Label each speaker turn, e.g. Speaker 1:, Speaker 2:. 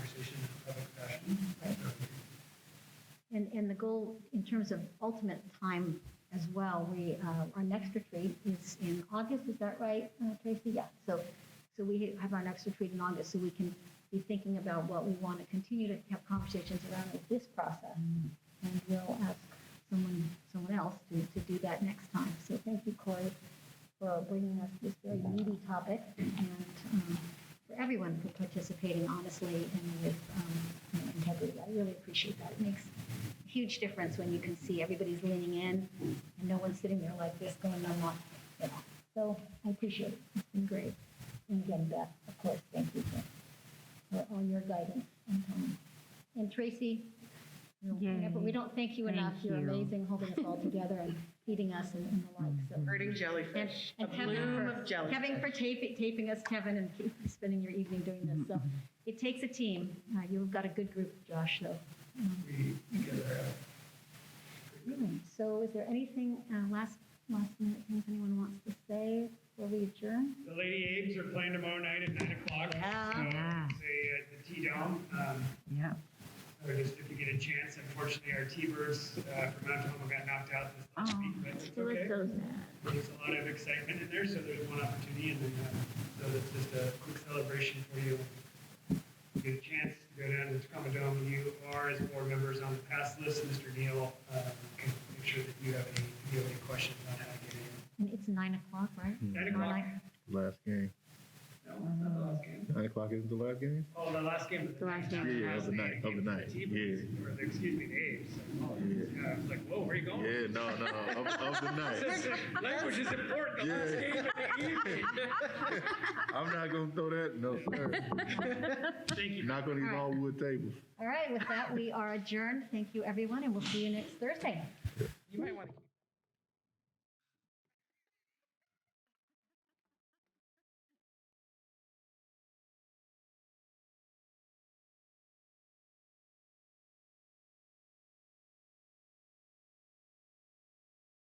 Speaker 1: And, and the goal in terms of ultimate time as well, we, uh, our next retreat is in August, is that right, uh, Tracy? Yeah, so, so we have our next retreat in August, so we can be thinking about what we want to continue to have conversations around with this process. And we'll ask someone, someone else to, to do that next time. So thank you, Corey, for bringing us this very meaty topic and um, for everyone for participating honestly and with um, you know, integrity. I really appreciate that. It makes a huge difference when you can see everybody's leaning in and no one's sitting there like this going, I'm not, you know. So I appreciate it. It's been great. And again, Beth, of course, thank you for, for all your guidance and time. And Tracy, you know,
Speaker 2: Yay.
Speaker 1: whenever- we don't thank you
Speaker 2: Thank
Speaker 1: enough. You're
Speaker 2: you.
Speaker 1: amazing holding us all together and feeding us and, and the like. So
Speaker 3: Hurting
Speaker 1: and,
Speaker 3: jellyfish, a
Speaker 1: and Kevin
Speaker 3: bloom
Speaker 1: for,
Speaker 3: of jellyfish.
Speaker 1: Kevin for taping, taping us, Kevin, and keep spending your evening doing this. So it takes a team. Uh, you've got a good group, Josh, though.
Speaker 4: we together have
Speaker 1: Really. So is there anything, uh, last, last minute things anyone wants to say before we adjourn?
Speaker 4: The Lady Abe's are playing tomorrow night at nine o'clock.
Speaker 2: Yeah.
Speaker 4: So, say at the T Dome. Um,
Speaker 2: Yeah.
Speaker 4: or just if you get a chance. Unfortunately, our T Birds uh, from Mount Tomo got knocked out this last
Speaker 2: Oh.
Speaker 4: week, but it's
Speaker 1: Still
Speaker 4: okay.
Speaker 1: so sad.
Speaker 4: There's a lot of excitement in there, so there's one opportunity, and then uh, so it's just a quick celebration for you. You Get a chance to go down to the Tacoma Dome. You are, as board members, on the pass list. Mr. Neal um, can make sure that you have any, if you have any questions on how to get in.
Speaker 1: And it's nine o'clock, right?
Speaker 4: Nine o'clock.
Speaker 1: Nine.
Speaker 5: Last game.
Speaker 4: No, it's not the last game.
Speaker 5: Nine o'clock isn't the last game?
Speaker 4: Oh, the last game of the,
Speaker 2: The last
Speaker 4: night.
Speaker 2: game
Speaker 5: Yeah, of the night, of the night,
Speaker 4: Or, excuse me, the A's. Like, oh,
Speaker 5: Yeah.
Speaker 4: yeah. I was like, whoa, where are you going?
Speaker 5: Yeah, no, no, of, of the night.
Speaker 3: Language is important. The last
Speaker 5: Yeah.
Speaker 3: game of the evening.
Speaker 5: I'm not gonna throw that, no, sir.
Speaker 4: Thank you.
Speaker 5: Not gonna eat all wood tables.
Speaker 1: All right, with that, we are adjourned. Thank you, everyone, and we'll see you next Thursday.
Speaker 3: You might want to keep